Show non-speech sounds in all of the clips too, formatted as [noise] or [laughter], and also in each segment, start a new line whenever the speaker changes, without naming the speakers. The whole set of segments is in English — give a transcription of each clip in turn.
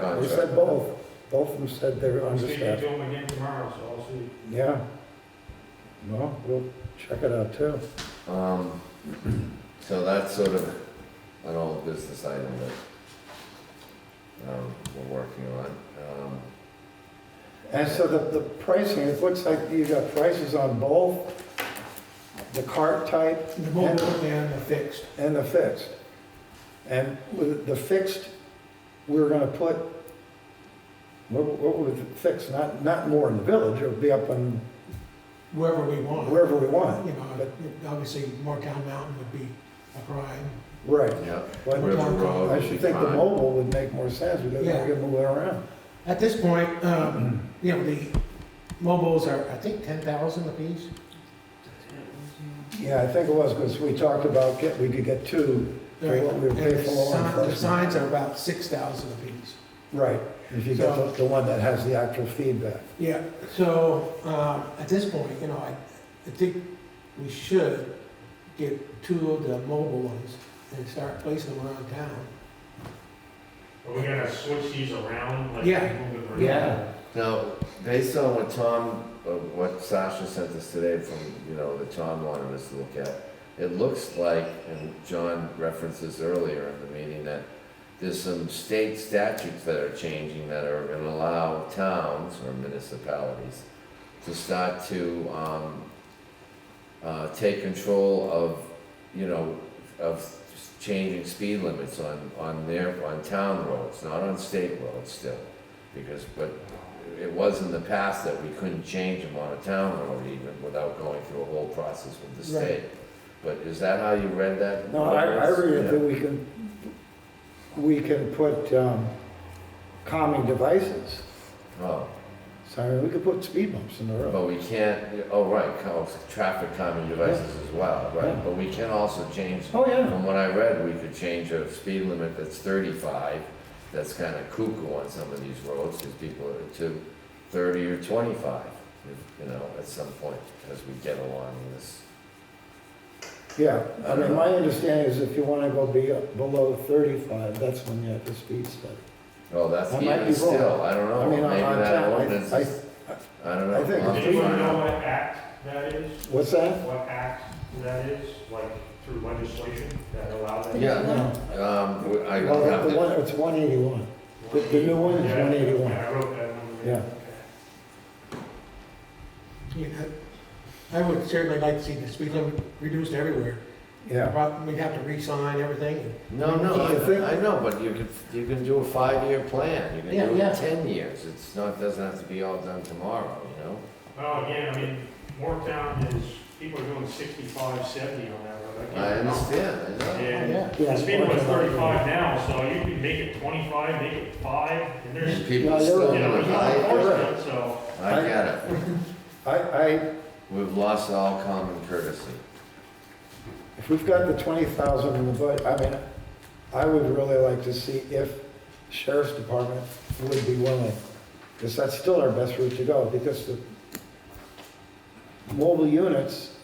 They said both, both of them said they were
I'm speaking
understaffed.
to him again tomorrow, so I'll see.
Yeah. Well, we'll check it out too.
Um, so that's sort of an old business item that, um, we're working on. Um,
And so the, the pricing, it looks like you got prices on both the cart type
The mobile and the fixed.
and the fixed. And with the fixed, we we're gonna put, what, what would it fix? Not, not more in the village, it would be up on
wherever we want.
wherever we
You
want.
know, obviously, Markham Mountain would be a prime.
Right.
yeah,
But
River Road
I
would be
should think the
fine.
mobile would make more sense because
Yeah.
we can move it around.
At this point, um, you know, the mobiles are, I think, ten thousand apiece.
Yeah, I think it was, because we talked about get, we could get two.
They're-
For what we
and
pay for
the
law
si- The
enforcement.
signs are about six thousand apiece.
Right. If you get the, the one that has the actual feedback.
Yeah, so, um, at this point, you know, I, I think we should get two of the mobile ones and start placing them around town.
But we gotta switch these around, like.
Yeah.
move it around.
Yeah.
Now, based on what Tom, uh, what Sasha sent us today from, you know, that Tom wanted us to look at, it looks like, and John referenced this earlier in the meeting, that there's some state statutes that are changing that are gonna allow towns or municipalities to start to, um, uh, take control of, you know, of changing speed limits on, on their, on town roads, not on state roads still. Because, but it was in the past that we couldn't change them on a town road even without going through a whole process with the
Right.
state. But is that how you read that?
No, I, I read
Yeah.
it that we can, we can put, um, calming devices.
Oh,
So I mean, we could put speed bumps in the road.
but we can't, oh, right, cal- traffic calming devices as well,
Yeah.
right? But we can also change,
Oh, yeah.
from what I read, we could change a speed limit that's thirty-five, that's kind of cuckoo on some of these roads, because people are to thirty or twenty-five, if- you know, at some point, as we get along in this.
Yeah, I mean, my understanding is if you wanna go be below thirty-five, that's when you have to speed study.
Oh, that's
I might
even
be
still,
wrong.
I don't
I
know, maybe
mean, on on
that
town,
ordinance
I,
is,
I,
I don't know.
I think
I'll
it's
have to
Do you wanna
find
know
out.
what act that is?
what's that?
What act that is, like through legislation that allows that?
Yeah.
No.
Um, we- I
Well,
have
the
to,
one, it's one eighty-one. The- the new one is
Yeah,
181.
Yeah, I wrote that one.
Yeah.
You know, I would certainly like to see the speed limit reduced everywhere.
Yeah,
Prob- We'd have to re-sign everything.
no, no,
I think-
I, I know, but you can, you can do a five-year plan, you can
Yeah,
do
yeah.
it ten years, it's not, doesn't have to be all done tomorrow, you know?
Well, again, I mean, Moretown is, people are doing 65, 70 on that road. can't
I
remember.
understand, I know.
And
Yeah.
the speed limit's 35 now, so you can make it 25, make it 5, and
And
there's,
Yeah,
people
you're
still,
you know,
right.
you
I-
can enforce
I,
it, so.
I get it,
I, I,
we've lost all common courtesy.
if we've got the twenty thousand in the budget, I mean, I would really like to see if sheriff's department would be willing, because that's still our best route to go, because the mobile units,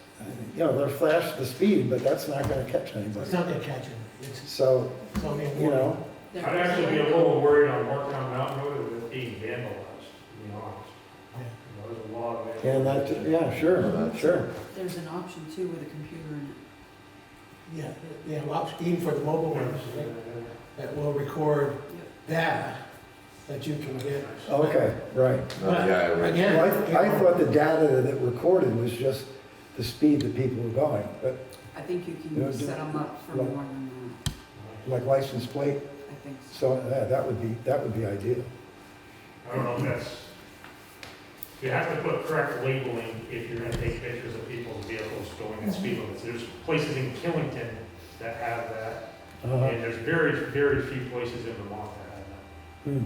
you know, they're flash the speed, but that's not gonna catch
It's
anybody.
not gonna catch it. It's,
So,
it's only a
you
warning.
know,
I'd actually be a little worried on Moretown Mountain Road with it being vandalized, to be honest.
Yeah.
You know, There's a lot of. vandalism.
and that, yeah, sure, sure.
There's an option too with a computer in it.
Yeah, yeah, well, even for the mobile ones, that will record data that you can get.
Okay, right.
Not the IRA.
Again.
Well, I, I thought the data that recorded was just the speed that people were going, but
I think you
Yeah,
can
do-
set them up for
like-
more than
like license plate,
that, I think. so.
so, yeah, that would be, that would be ideal.
I don't know if that's, you have to put correct labeling if you're gonna take pictures of people's vehicles going at speed limits. There's places in Killington that have that,
Uh-huh.
and there's very, very few places in Vermont that have that.
Hmm.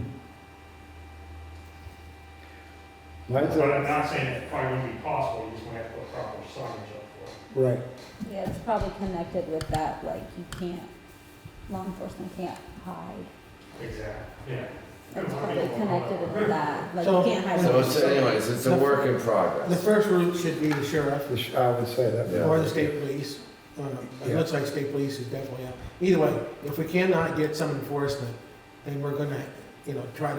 Mine's
But I'm
a,
not saying it probably wouldn't be possible, you just might have to put proper signage up for it.
right,
Yeah, it's probably connected with that, like you can't, law enforcement can't hide.
Exactly, yeah.
It's probably
[laughs]
connected with that, like
So-
you can't hide.
So it's, anyways, it's a work in
The
progress.
first route should be the sheriff
The sh- I would say that. yeah.
or the state police. Um, It looks like state police is definitely out. Either way, if we cannot get some enforcement, then we're gonna, you know, try to